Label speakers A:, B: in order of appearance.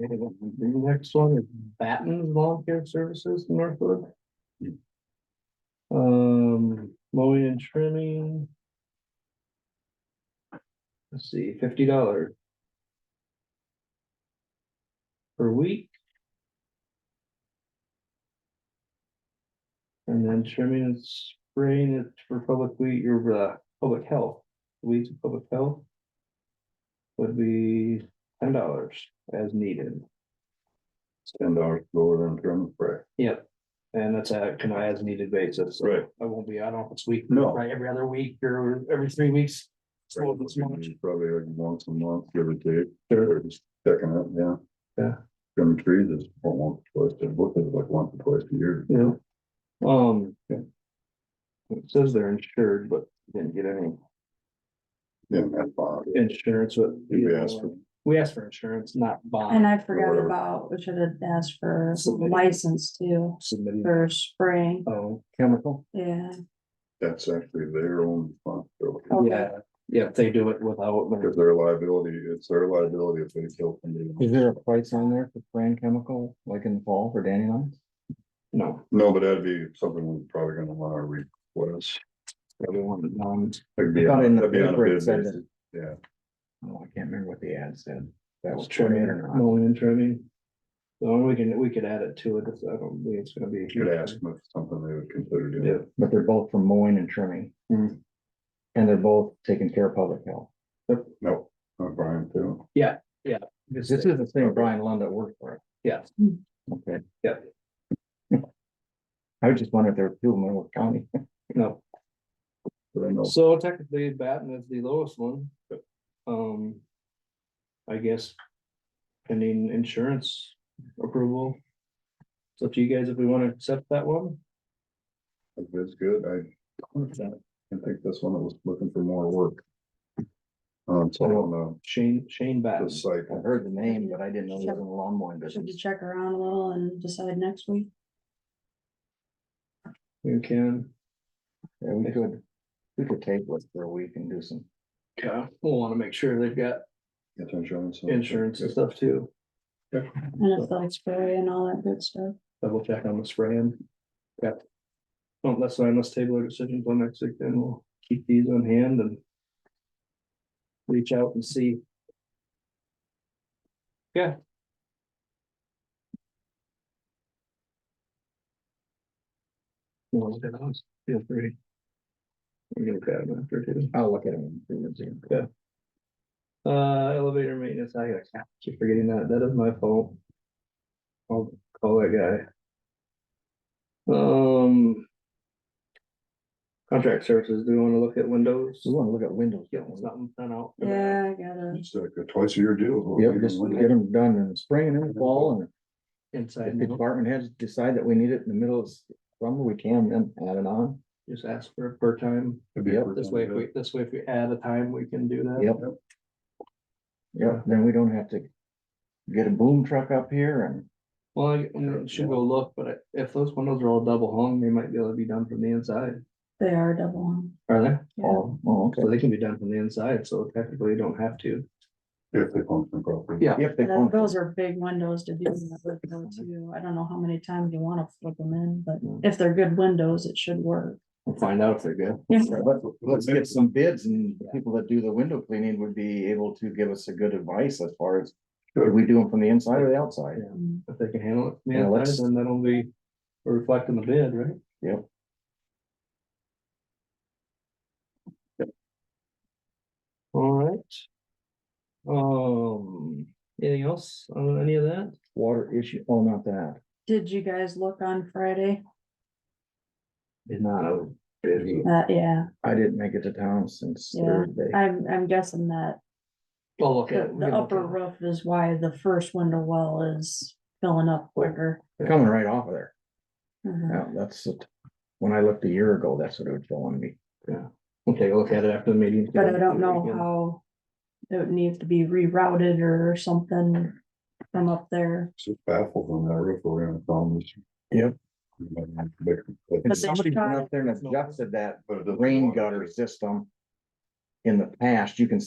A: The next one is Batten's Volunteer Services in Northwood. Um, mowing and trimming. Let's see, fifty dollars. Per week. And then trimming and spraying it for public weed, your, uh, public health, weeds of public health. Would be ten dollars as needed.
B: Ten dollars lower than trim and spray.
A: Yep. And that's a kind of as needed basis. so
B: Right.
A: I won't be out on this week.
B: No.
A: Right, every other week or every three weeks. Slow this much.
B: Probably like once a month, give or take,
A: Sure.
B: or just checking it, yeah.
A: Yeah.
B: Trim trees is about once, or twice, a- what is it, like once or twice a year.
A: Yeah. Um. It says they're insured, but didn't get any
B: Yeah, that's fine.
A: insurance, but.
B: We asked for-
A: We asked for insurance, not
C: And
A: bond
C: I forgot
B: whatever.
C: about, we should have asked for
A: Something.
C: license too,
A: submitting,
C: for spraying,
A: oh, chemical.
C: yeah.
B: That's actually their own responsibility.
D: Oh.
C: Okay.
A: Yeah, yeah, if they do it without.
B: Because their liability, it's their liability if they kill somebody.
D: Is there a price on there for brand chemical, like in the fall for dandelions?
A: No,
B: No, but that'd be something we're probably gonna wanna request.
A: everyone, um,
B: It'd be
D: I thought
B: on-
D: in the
B: that'd be on a
D: paper it
B: bid
D: said
B: basis. Yeah,
D: Oh, I can't remember what the ad said. That
A: was
D: was trimming
A: trimming,
D: or not.
A: mowing and trimming. So we can, we could add it to it, if I don't think it's gonna be.
B: you could ask them if it's something they would consider
A: Yeah.
B: doing.
D: But they're both for mowing and trimming.
A: Hmm.
D: And they're both taking care of public health.
B: No, I'm Brian too.
D: This is the same Brian Lund that worked for it.
A: Yes.
D: Okay.
A: Yeah.
D: I was just wondering if there were two in Monroe County.
A: No,
B: But I know
A: so technically Batten is the lowest one. Um. I guess. Pending insurance approval. So to you guys, if we wanna accept that one,
B: If it's good, I, I think this one was looking for more work. Um, so on
A: Shane, Shane
B: the,
A: Batten.
B: the site,
D: I heard the name, but I didn't know it was in the lawn mowing
C: Should we
D: business.
C: check around a little and decide next week?
A: You can,
D: Yeah, we could, we could take it for a week and do some.
A: yeah, we'll wanna make sure they've got
B: it's insurance. so-
A: insurance and stuff too.
C: And if they'll spray and all that good stuff,
A: Double check on the spraying. Yep. Well, that's why I must table our decision till next week, then we'll keep these on hand and. Reach out and see. Yeah. Well, look at those. Feel free. We're gonna grab them after too.
D: I'll look at them. and see.
A: Yeah. Uh, elevator maintenance, I gotta keep forgetting that, that is my fault. I'll call that guy. Um. Contract services, do you wanna look at windows?
D: We wanna look at windows.
A: Get something done out. for that.
C: yeah, I gotta,
B: It's like a twice a year deal.
D: Yep, just get them done in the spring and in the fall and
A: Inside,
D: If the
A: and out.
D: department heads decide that we need it in the middle of summer, we can then add it on.
A: just ask for a per time,
D: Yep,
A: this way, if we, this way, if we add a time, we can do that.
D: Yep. Yeah, then we don't have to get a boom truck up here and,
A: Well, I I should go look, but I- if those windows are all double hung, they might be able to be done from the inside,
C: they are double on.
A: are they?
C: Yeah.
D: oh, oh,
A: So
D: okay.
A: they can be done from the inside, so technically you don't have to.
B: If they function properly.
A: Yeah.
D: Yep, they
C: That-
D: want,
C: Those are big windows to do that with though too. I don't know how many times you wanna flip them in, but
A: Mm.
C: if they're good windows, it should work.
A: We'll find out if they're good.
D: let's, let's get some bids and the people that do the window cleaning would be able to give us a good advice as far as. Are we do them from the inside or the outside?
C: Mm.
A: If they can handle it,
D: Yeah,
A: yeah,
D: let's-
A: then that'll be reflecting the bid, right?
D: Yep.
A: All right. Um, anything else on any of that?
D: Water issue, oh, not that.
C: Did you guys look on Friday?
A: Did not.
C: Uh, yeah,
D: I didn't make it to town since
C: Yeah.
D: Thursday.
C: I'm, I'm guessing that
A: Well, look at.
C: The,
A: it. We
C: the
A: can look at
C: upper
A: it.
C: roof is why the first window well is filling up quicker.
D: Coming right off of there.
C: Mhm.
D: Yeah, that's, it. when I looked a year ago, that's what it was showing me.
A: We'll take a look at it after the meeting.
C: But I don't know how it would need to be rerouted or something from up there.
B: It's just baffled on that roof around the problems.
D: Yep. And
C: But they
D: somebody went
C: tried-
D: up there and adjusted that
B: But it doesn't
D: rain
B: water.
D: gutter system. In the past, you can